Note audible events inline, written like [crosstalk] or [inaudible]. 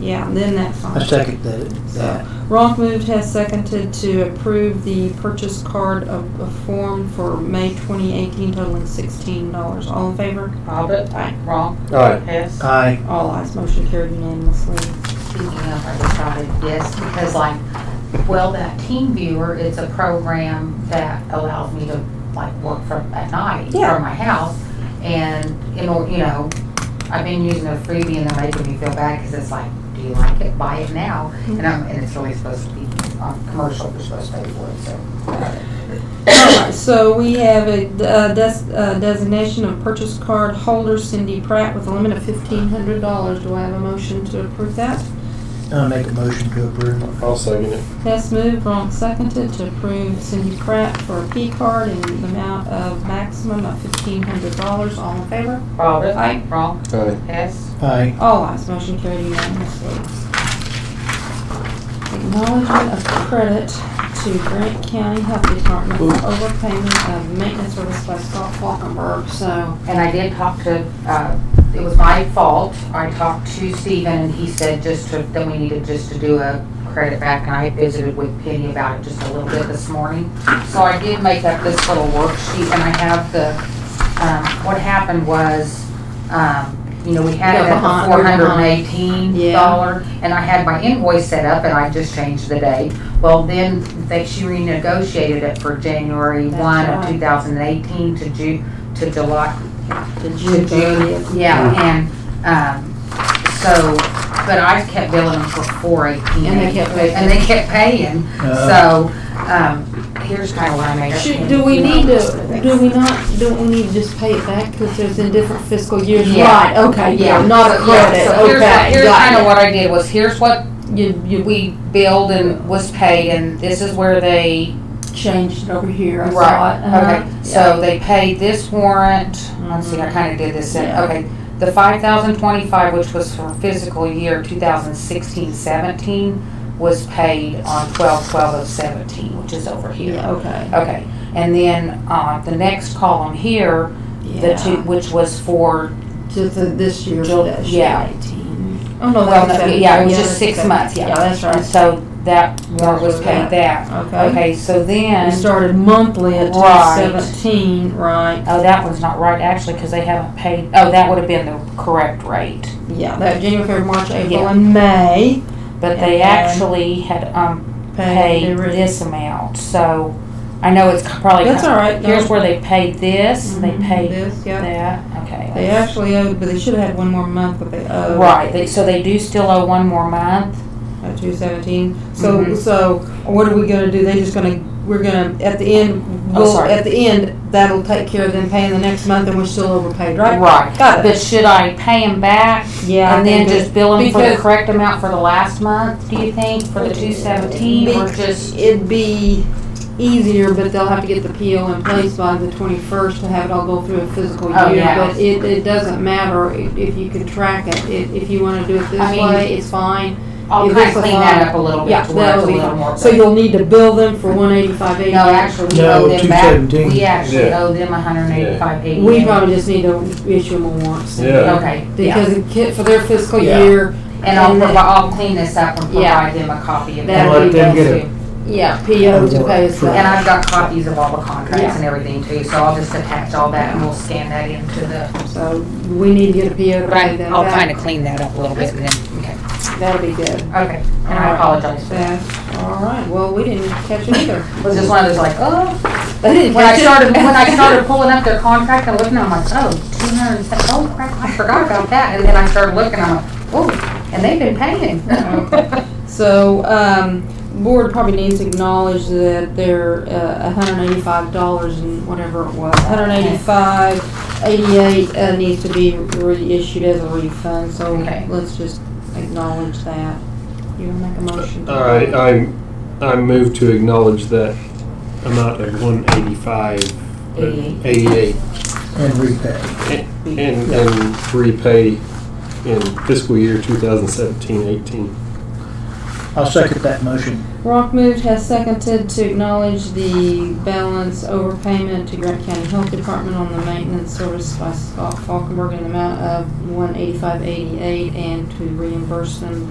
Yeah, then that's fine. I second that, So, that. Ronk moved, has seconded to approve the purchase card of a form for May twenty eighteen totaling sixteen dollars. All in favor? Bobbit, Aye. wrong, Alright. Hess. Aye, All ayes, motion carried unanimously. Speaking of, I decided yes, because like, well, that Team Viewer, it's a program that allows me to like work from, at night Yeah. from my house. And in order, you know, I've been using a freebie and they're making me feel bad because it's like, do you like it? Buy it now. Mm-hmm. And I'm, and it's really supposed to be, um, commercial, we're supposed to pay for it, so. Alright, so we have a, uh des- uh, designation of purchase card holder Cindy Pratt with a limit of fifteen hundred dollars. Do I have a motion to approve that? I'll uh, make a motion to approve. I'll second it. Hess moved, Ronk seconded to approve Cindy Pratt for a P card in the amount of maximum of fifteen hundred dollars. All in favor? Bobbit. Aye. Wrong, Aye. Hess. Aye, All ayes, motion carried unanimously. Acknowledgement of credit to Grant County Health Department for overpayment of maintenance service by Scott Falkenberg, so. And I did talk to, uh, it was my fault. I talked to Steven and he said just to, then we needed just to do a credit back. And I visited with Penny about it just a little bit this morning. So I did make up this little worksheet and I have the, um, what happened was, um, you know, we had it at the Go four behind, go hundred and behind. eighteen Yeah. dollar. And I had my invoice set up and I just changed the date. Well, then they, she renegotiated it for January That's one of right. two thousand and eighteen to Ju, to July, The to thirtieth. June, yeah, and, um, so, but I kept billing them for four eighteen. And they kept paying. And they kept paying, Uh. so, um, here's kinda what I made. up. Should, do we need to, do we not, don't we need to just pay it back, cause there's in different fiscal years, Yeah. right, okay, yeah, not a So, yeah, credit, so here's what- okay, Here's kinda got what I did, was here's what it. You, you we billed and was paid, and this is where they changed it over here, I saw it. Right, uh-huh. okay, so they paid this warrant, let's see, I kinda did this, in- Mm-hmm. Yeah. okay, the five thousand twenty-five, which was for fiscal year 2016-17, was paid on twelve twelve of seventeen, which is over Yeah, here. okay. Okay, and then, uh, the next column here, the Yeah. two, which was for, To the, this year's Jul- debt, yeah. yeah, eighteen. Oh, no, well, that's no, seven- yeah, it was that's just six seven. months, Yeah, yeah. that's And right. so that warrant was That's paid that. that. Okay. Okay, so then. We started monthly at Right. two seventeen, right? Oh, that one's not right, actually, because they haven't paid, oh, that would have been the correct rate. Yeah, that January, February, March, April, Yeah. and May. But they And then- actually had, um, paid every- this amount, so I know it's probably. That's all right. Here's where they paid this, they Mhm, paid This, yeah. that, okay. They actually owed, but they should have had one more month, but they owed. Right, they, so they do still owe one more month, At two seventeen. So, Mhm. so what are we gonna do? They just gonna, we're gonna, at the end, Oh, we'll, sorry. at the end, that'll take care of them paying the next month and we're still overpaid, right? right. Got it. But should I pay them back Yeah. I and then think it- just bill them for the because- correct amount for the last month, do you think, for the two seventeen, or Be- just? It'd be easier, but they'll have to get the PO in place by the twenty-first to have it all go through a physical Oh, year. yeah. But it, it doesn't matter i- if you can track it, if, if you wanna do it I this mean, way, it's fine. I'll If kind it's of a clean lot- that up a little bit Yeah, to where it's a that'll be little fine. more. So you'll need to bill them for one eighty-five eighty. No, actually, we No, owe them back. 217. We actually Yeah. owe them a hundred and eighty-five eighty. We probably just need to issue them a warrant. so- Yeah. Okay, yeah. Because it ca- for their fiscal Yeah. year, And I'll and provide, then- I'll clean this up and Yeah. provide them a copy of That'd that. Let be them best. get yeah, PO to pay us. For- And back. I've got copies of all the Yeah. contracts and everything too, so I'll just attach all that and we'll scan that into the. So we need to get a PO to pay them back. of clean that up a little bit and then, okay. That'll be good. Okay, and I apologize for that. All right, well, we didn't catch it either. It was just one of those like, oh, They didn't when I catch it. started, when [laughs] I started pulling up their contract and looking, I'm like, oh, two hundred and seven, oh crap, I forgot about that. And then I started looking, I'm like, oh, and they've been [laughs] paying. So, um, board probably needs to acknowledge that they're, uh, hundred and eighty-five dollars and whatever it was, hundred and eighty-five, eighty-eight, uh, needs to be reissued as a refund, so Okay. let's just acknowledge that. You wanna make a motion? All right, uh, I, I move to acknowledge that amount of one eighty-five. uh, Eighty-eight. Eighty-eight, and repay. and, and repay in fiscal year 2017-18. I'll second that motion. Rock moved has seconded to acknowledge the balance overpayment to Grant County Health Department on the maintenance service by Scott Falkenberg in the amount of one eighty-five eighty-eight and to reimburse them